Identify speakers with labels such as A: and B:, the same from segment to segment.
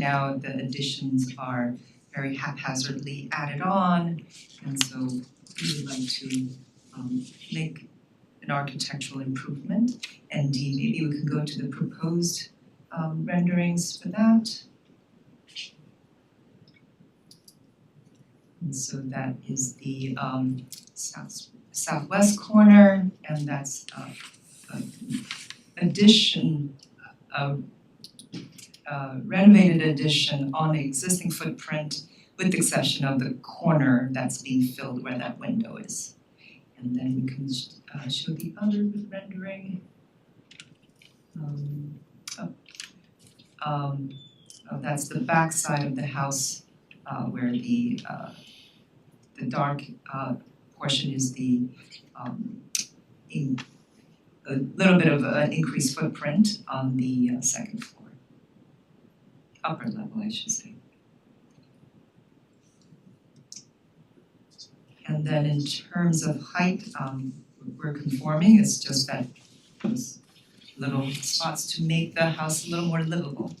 A: Now the additions are very haphazardly added on, and so we would like to um make an architectural improvement. And D, maybe we could go to the proposed um renderings for that. And so that is the um south southwest corner and that's uh uh, addition uh uh renovated addition on the existing footprint with the exception of the corner that's being filled where that window is. And then we can sh- uh show the other rendering. Um oh. Um oh, that's the back side of the house uh where the uh the dark uh portion is the um in a little bit of an increased footprint on the uh, second floor. Upper level, I should say. And then in terms of height, um we're conforming, it's just that those little spots to make the house a little more livable.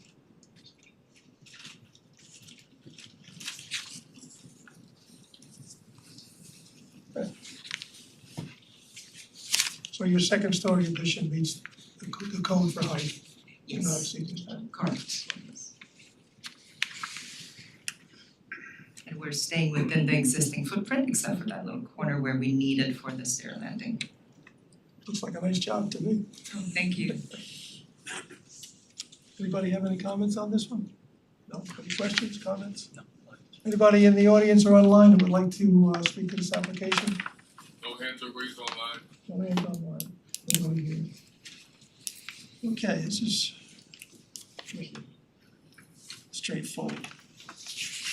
B: So your second story addition meets the co- the code for height, you know,
A: Yes,
B: exceeding that.
A: correct. And we're staying within the existing footprint except for that little corner where we need it for the stair landing.
B: Looks like a nice job to me.
A: Oh, Thank you.
B: Anybody have any comments on this one? No, any questions, comments? No. Anybody in the audience or online who would like to uh speak to this application?
C: No hands are raised online.
B: No hands online, nobody here. Okay, this is straightforward.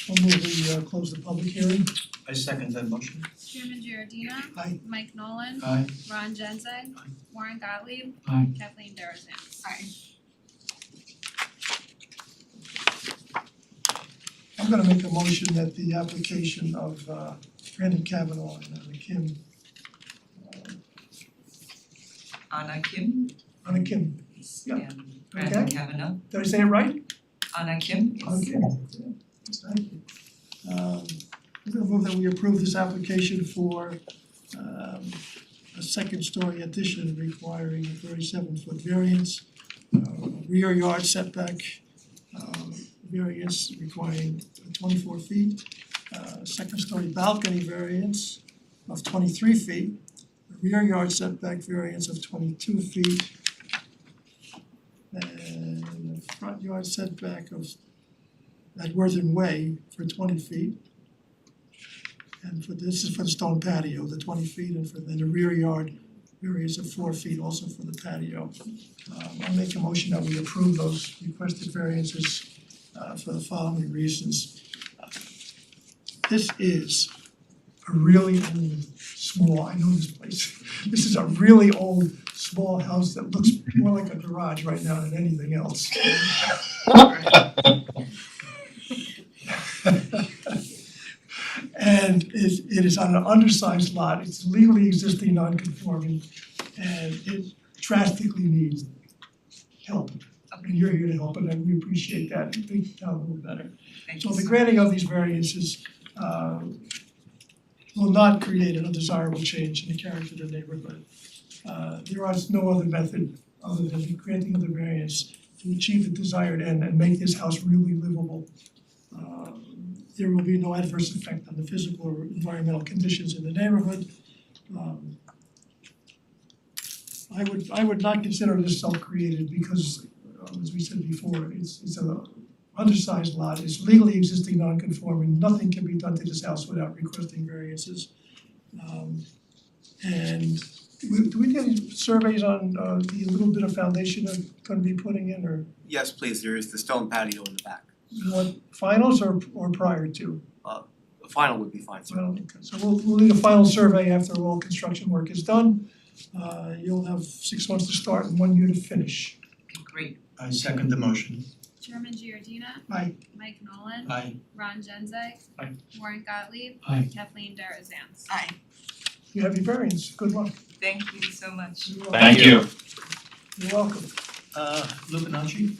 B: I'll move we uh close the public hearing.
D: I second that motion.
E: Chairman Giordina.
B: Aye.
E: Mike Nolan.
D: Aye.
E: Ron Genzeg. Warren Gottlieb.
D: Aye.
E: Kathleen Darazan. Aye.
B: I'm gonna make a motion that the application of uh Brandon Kavanaugh and Anna Kim,
A: Anna Kim
B: Anna Kim, Yeah.
A: and Brandon
B: Okay.
A: Kavanaugh.
B: did I say it right?
A: Anna Kim, yes.
B: Okay. Thank you. Um, I'm gonna move that we approve this application for um a second story addition requiring a thirty-seven foot variance, uh, rear yard setback, um variance requiring twenty-four feet, uh, second story balcony variance of twenty-three feet, rear yard setback variance of twenty-two feet, and a front yard setback of at Worthing Way for twenty feet. And for, this is for the stone patio, the twenty feet, and for then the rear yard areas of four feet also for the patio. Um I'll make a motion that we approve those requested variances uh for the following reasons. This is a really old, small, I know this place, this is a really old, small house that looks more like a garage right now than anything else. And it it is on an undersized lot, it's legally existing non-conforming, and it drastically needs help. And you're here to help, and I- we appreciate that, and think the town will better.
A: Thank
B: So
A: you.
B: the granting of these variances uh will not create an undesirable change in the character of the neighborhood. Uh there is no other method other than the granting of the variance to achieve the desired end and make this house really livable. Uh there will be no adverse effect on the physical or environmental conditions in the neighborhood. Um I would I would not consider this self-created because uh, as we said before, it's it's a undersized lot, it's legally existing non-conforming, nothing can be done to this house without requesting variances. Um and do we do we get any surveys on uh the little bit of foundation they're gonna be putting in or
F: Yes, please, there is the stone patio in the back.
B: what finals or or prior to?
F: The final would be fine, sir.
B: Well, okay, so we'll we'll need a final survey after all construction work is done. Uh you'll have six months to start and one year to finish.
A: Okay, Great,
D: I second the motion.
E: Chairman Giordina.
B: Aye.
E: Mike Nolan.
D: Aye.
E: Ron Genzeg.
D: Aye.
E: Warren Gottlieb.
D: Aye.
E: Kathleen Darazan.
B: You have your variance, good luck.
A: thank you so much.
B: You're welcome.
G: Thank you.
B: You're welcome.
D: Uh Lupinacci?